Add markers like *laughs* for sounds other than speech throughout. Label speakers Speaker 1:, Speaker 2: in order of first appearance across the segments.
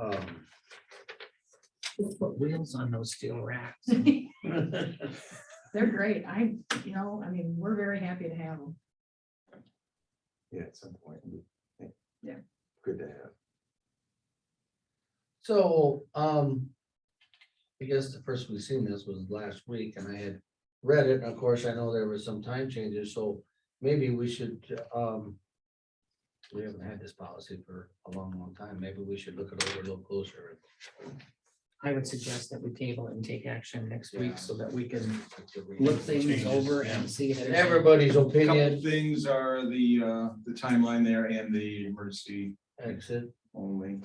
Speaker 1: Um,
Speaker 2: Just put wheels on those steel
Speaker 3: *laughs*
Speaker 2: racks.
Speaker 3: They're great. I, you know, I mean, we're very happy to have them.
Speaker 1: Yeah, at some point. we- yeah.
Speaker 3: Yeah.
Speaker 1: Good to have.
Speaker 2: So, um, I guess the first we seen this was last week and I had read it. and Of course, I know there were some time changes, so maybe we should, um, we haven't had this policy for a long, long time. Maybe we should look it over a little closer.
Speaker 4: I would suggest that we table it and take action next
Speaker 2: Yeah.
Speaker 4: week so that we can look
Speaker 2: and
Speaker 4: things
Speaker 5: Changes,
Speaker 4: over
Speaker 5: yeah.
Speaker 4: and see. if
Speaker 2: And
Speaker 4: there's any-
Speaker 2: everybody's
Speaker 5: Couple
Speaker 2: opinion,
Speaker 5: Things are the, uh, the timeline there and the emergency
Speaker 2: exit,
Speaker 5: only at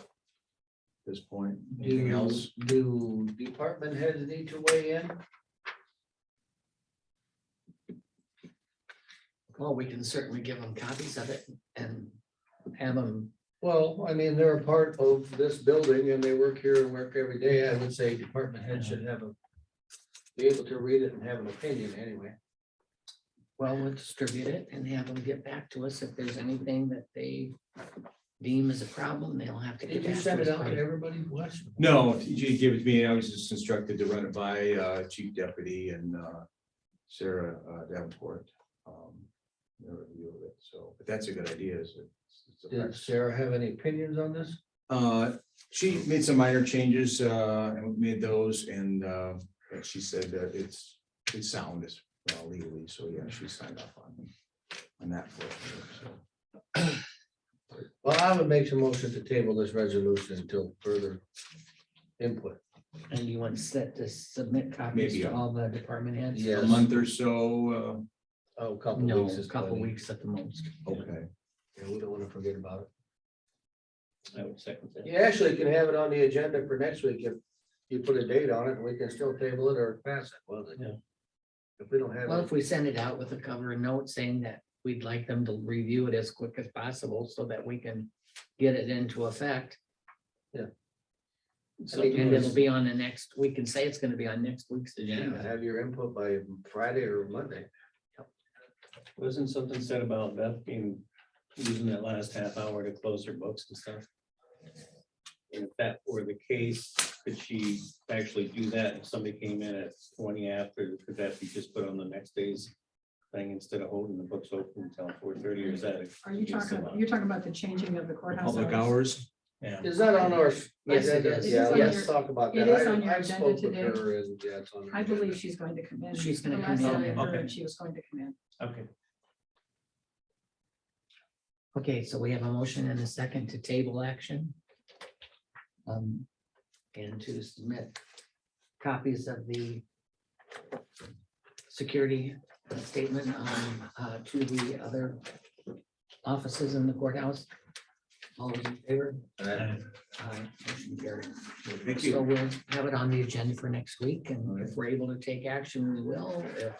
Speaker 5: this point. Anything
Speaker 2: do,
Speaker 5: else?
Speaker 2: do department heads need to weigh in?
Speaker 4: Well, we can certainly give them copies of it and have them,
Speaker 2: Well, I mean, they're a part of this building and they work here and work every day. I would say department head should have a. Be able to read it and have an opinion anyway.
Speaker 4: well, we'll distribute it and have them get back to us if there's anything that they deem as a problem, they'll have to. get
Speaker 2: Did you
Speaker 4: back
Speaker 2: send it
Speaker 4: us
Speaker 2: out
Speaker 4: by-
Speaker 2: to everybody? What?
Speaker 5: No, TJ gave it to me. I was just instructed to run it by, uh, Chief Deputy and, uh, Sarah uh, Davenport. um, their review of it. So, but that's a good idea, is it? It's a
Speaker 2: Did Sarah have any opinions on this?
Speaker 5: Uh, she made some minor changes, uh, and made those and, uh, and she said that it's, it's sound is uh, legally, so yeah, she signed off on. On that. for her, so.
Speaker 2: Well, I would make some motion to table this resolution until further input.
Speaker 4: And you want set to submit copies
Speaker 5: Maybe,
Speaker 4: to
Speaker 5: uh,
Speaker 4: all the department heads?
Speaker 2: Yeah.
Speaker 5: A month or so,
Speaker 2: Oh, a couple
Speaker 4: No,
Speaker 2: weeks
Speaker 4: a
Speaker 2: is
Speaker 4: couple
Speaker 2: plenty.
Speaker 4: weeks at the most.
Speaker 5: uh, okay.
Speaker 2: Yeah, we don't want to forget about
Speaker 6: I would second
Speaker 2: it.
Speaker 6: that.
Speaker 2: You actually can have it on the agenda for next week if you put a date on it and we can still table it or pass it. Well,
Speaker 6: Yeah.
Speaker 2: If we don't have.
Speaker 4: Well,
Speaker 2: it-
Speaker 4: if we send it out with a cover and note saying that we'd like them to review it as quick as possible so that we can get it into effect. And it'll be on the next, we can say it's gonna be on next week's
Speaker 2: Yeah,
Speaker 4: agenda.
Speaker 2: have your input by Friday or Monday.
Speaker 6: Wasn't something said about Beth being, using that last half hour to close her books and stuff? And If that were the case, could she actually do that if somebody came in at twenty after, could that be just put on the next day's thing instead of holding the books open until four thirty or is that? a-
Speaker 3: Are you talking, you're talking about the changing of the courthouse?
Speaker 5: Public
Speaker 3: hours?
Speaker 5: hours.
Speaker 6: Yeah,
Speaker 2: Is that on our?
Speaker 4: Yes, it
Speaker 2: agenda?
Speaker 4: is.
Speaker 2: Yeah,
Speaker 3: It is on
Speaker 2: let's
Speaker 3: your-
Speaker 2: talk about that.
Speaker 3: it is
Speaker 2: I-
Speaker 3: on your
Speaker 2: I
Speaker 3: agenda
Speaker 2: spoke with
Speaker 3: today.
Speaker 2: her and, yeah, it's on her
Speaker 3: I believe
Speaker 2: agenda.
Speaker 3: she's going to come in.
Speaker 4: She's gonna
Speaker 3: The
Speaker 4: come
Speaker 3: last
Speaker 4: in.
Speaker 3: I heard,
Speaker 6: Okay.
Speaker 3: She was going to come in.
Speaker 6: okay.
Speaker 4: Okay, so we have a motion and a second to table action. Um, and to submit copies of the security statement um, uh, to the other offices in the courthouse. All those in favor?
Speaker 2: Uh,
Speaker 4: Aye, motion carried.
Speaker 5: Thank
Speaker 4: So
Speaker 5: you.
Speaker 4: we'll have it on the agenda for next week, and if we're able to take action, we will. If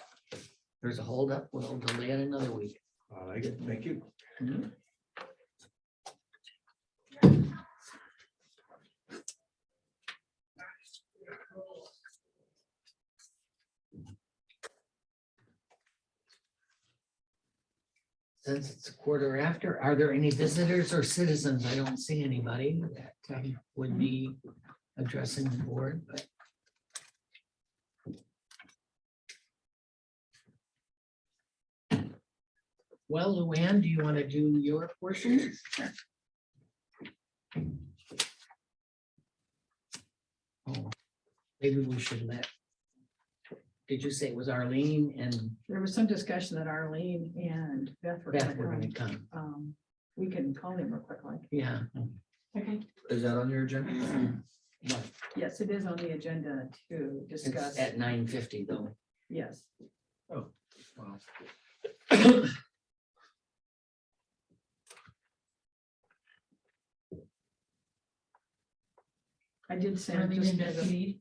Speaker 4: there's a holdup, we'll delay it another week.
Speaker 5: I like it. Thank you.
Speaker 4: Mhm. Since it's a quarter after, are there any visitors or citizens? I don't see anybody that um, would be addressing the board, but well, Luann, do you want to do your portion? Oh, Maybe we should let. Did you say it was Arlene and
Speaker 3: There was some discussion that Arlene and Beth were
Speaker 4: Beth were
Speaker 3: going
Speaker 4: gonna
Speaker 3: to
Speaker 4: come?
Speaker 3: come. Um, We can call them real quick, like.
Speaker 4: Yeah.
Speaker 3: Okay.
Speaker 2: Is that on your agenda?
Speaker 4: what,
Speaker 3: Yes, it is on the agenda to
Speaker 4: it's
Speaker 3: discuss.
Speaker 4: At nine fifty though.
Speaker 3: Yes. I did send just as a,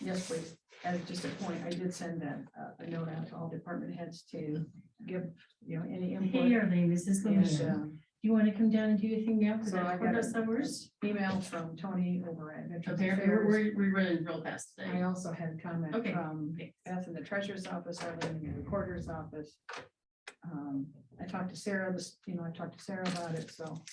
Speaker 3: yes, please, as just a point, I did send that, uh, a note out to all department heads to give, you know, any
Speaker 7: Hey,
Speaker 3: input.
Speaker 7: Arlene, this is
Speaker 3: And,
Speaker 7: Lucia.
Speaker 3: um,
Speaker 7: You want to come down and do your thing now? for
Speaker 3: So I
Speaker 7: that
Speaker 3: got
Speaker 7: quarter
Speaker 3: a
Speaker 7: summers?
Speaker 3: email from Tony over at Veterans
Speaker 7: Okay, we're,
Speaker 3: Affairs.
Speaker 7: we're, we're running real fast
Speaker 3: I
Speaker 7: today.
Speaker 3: also had comment
Speaker 7: Okay.
Speaker 3: from
Speaker 7: Thanks.
Speaker 3: Beth in the treasurer's office, Arlene in the recorder's office. Um, I talked to Sarah, this, you know, I talked to Sarah about it, so.